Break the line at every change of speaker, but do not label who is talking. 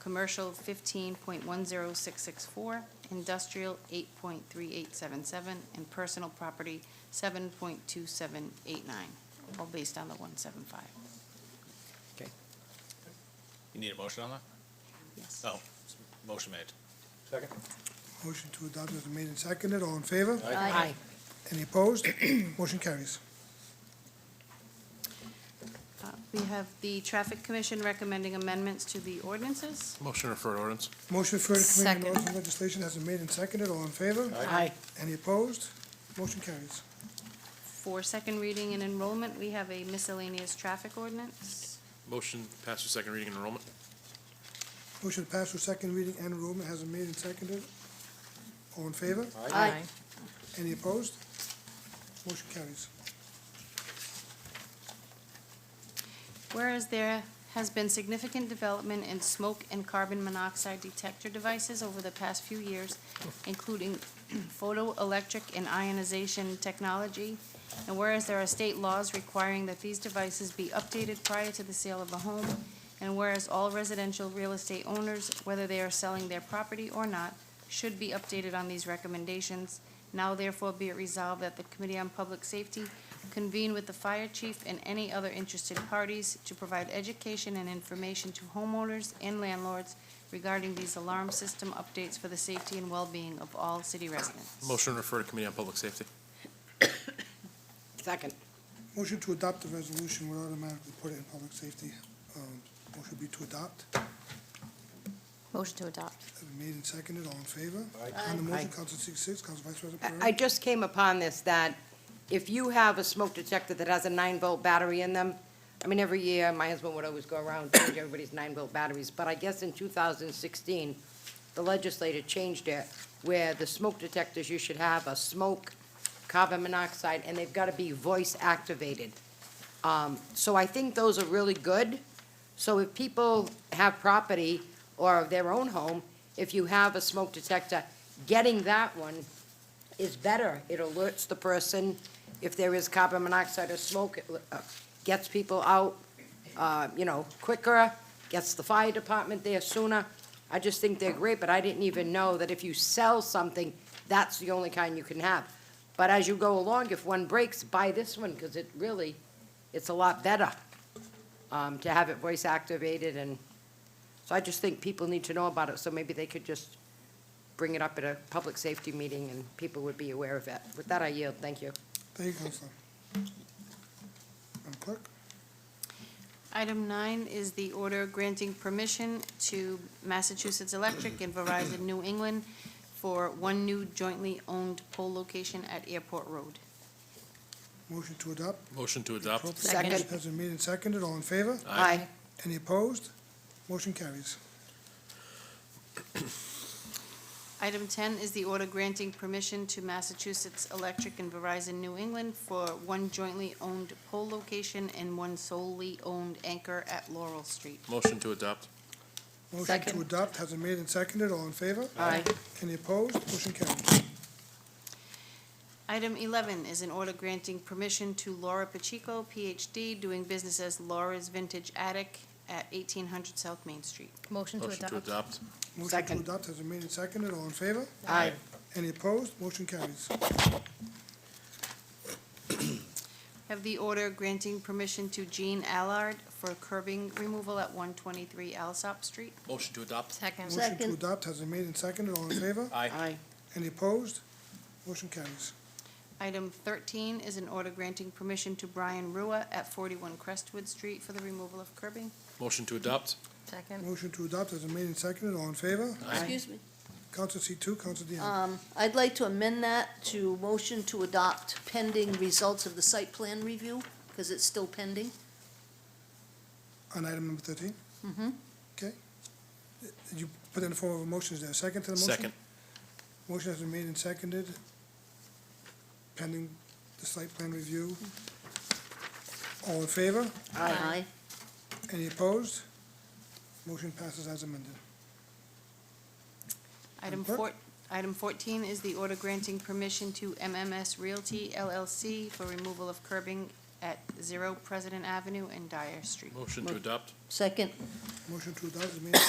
commercial fifteen point one zero six six four, industrial eight point three eight seven seven, and personal property seven point two seven eight nine, all based on the one seven five.
Okay.
You need a motion on that?
Yes.
Oh, s- motion made.
Second?
Motion to adopt has been made and seconded. All in favor?
Aye.
Any opposed? Motion carries.
Uh, We have the Traffic Commission recommending amendments to the ordinances.
Motion to refer to ordinance.
Motion for the committee on
Second.
Laws and Legislation has been made and seconded. All in favor?
Aye.
Any opposed? Motion carries.
For second reading and enrollment, we have a miscellaneous traffic ordinance.
Motion pass through second reading and enrollment.
Motion to pass through second reading and enrollment has been made and seconded. All in favor?
Aye.
Any opposed? Motion carries.
Whereas there has been significant development in smoke and carbon monoxide detector devices over the past few years, including photoelectric and ionization technology, and whereas there are state laws requiring that these devices be updated prior to the sale of a home, and whereas all residential real estate owners, whether they are selling their property or not, should be updated on these recommendations. Now therefore be it resolved that the Committee on Public Safety convene with the fire chief and any other interested parties to provide education and information to homeowners and landlords regarding these alarm system updates for the safety and well-being of all city residents.
Motion to refer to committee on public safety.
Second.
Motion to adopt the resolution would automatically put it in public safety. Um, Motion be to adopt.
Motion to adopt.
Has been made and seconded. All in favor? On the motion,
Aye.
Council seat six, Council Vice President
I-
Pereira.
I just came upon this, that if you have a smoke detector that has a nine-volt battery in them, I mean, every year, my husband would always go around and change everybody's nine-volt batteries, but I guess in 2016, the legislature changed it, where the smoke detectors, you should have a smoke, carbon monoxide, and they've got to be voice-activated. Um, So I think those are really good. So if people have property or their own home, if you have a smoke detector, getting that one is better. It alerts the person if there is carbon monoxide or smoke, it uh, gets people out, uh, you know, quicker, gets the fire department there sooner. I just think they're great, but I didn't even know that if you sell something, that's the only kind you can have. But as you go along, if one breaks, buy this one, because it really, it's a lot better um, to have it voice activated, and, so I just think people need to know about it, so maybe they could just bring it up at a public safety meeting and people would be aware of it. With that, I yield. Thank you.
Thank you, Councilor. Madam Clerk?
Item nine is the order granting permission to Massachusetts Electric and Verizon New England for one new jointly owned pole location at Airport Road.
Motion to adopt.
Motion to adopt.
Second.
Motion Has been made and seconded. All in favor?
Aye.
Any opposed? Motion carries.
Item 10 is the order granting permission to Massachusetts Electric and Verizon New England for one jointly owned pole location and one solely owned anchor at Laurel Street.
Motion to adopt.
Motion to
Second.
adopt has been made and seconded. All in favor?
Aye.
Any opposed? Motion carries.
Item 11 is an order granting permission to Laura Pacheco, Ph.D., doing business as Laura's Vintage Attic at 1800 South Main Street.
Motion to
Motion to
adopt.
adopt.
Motion to
Second.
adopt has been made and seconded. All in favor?
Aye.
Any opposed? Motion carries.
Have the order granting permission to Jean Allard for curbing removal at 123 Alsop Street.
Motion to adopt.
Second.
Motion to adopt has been made and seconded. All in favor?
Aye.
Any opposed? Motion carries.
Item 13 is an order granting permission to Brian Rua at 41 Crestwood Street for the removal of curbing.
Motion to adopt.
Second.
Motion to adopt has been made and seconded. All in favor?
Excuse me.
Council seat two, Council Dion.
Um, I'd like to amend that to motion to adopt pending results of the site plan review, because it's still pending.
On item number 13 Mm-hmm. Okay. You put in the form of a motion. Is there a second to the motion?
Second.
Motion has been made and seconded, pending the site plan review. All in favor?
Aye.
Any opposed? Motion passes as amended.
Item
Madam
four, item 14 is the order granting permission to MMS Realty LLC for removal of curbing at 0 President Avenue and Dyer Street.
Motion to adopt.
Second.
Motion to adopt is made and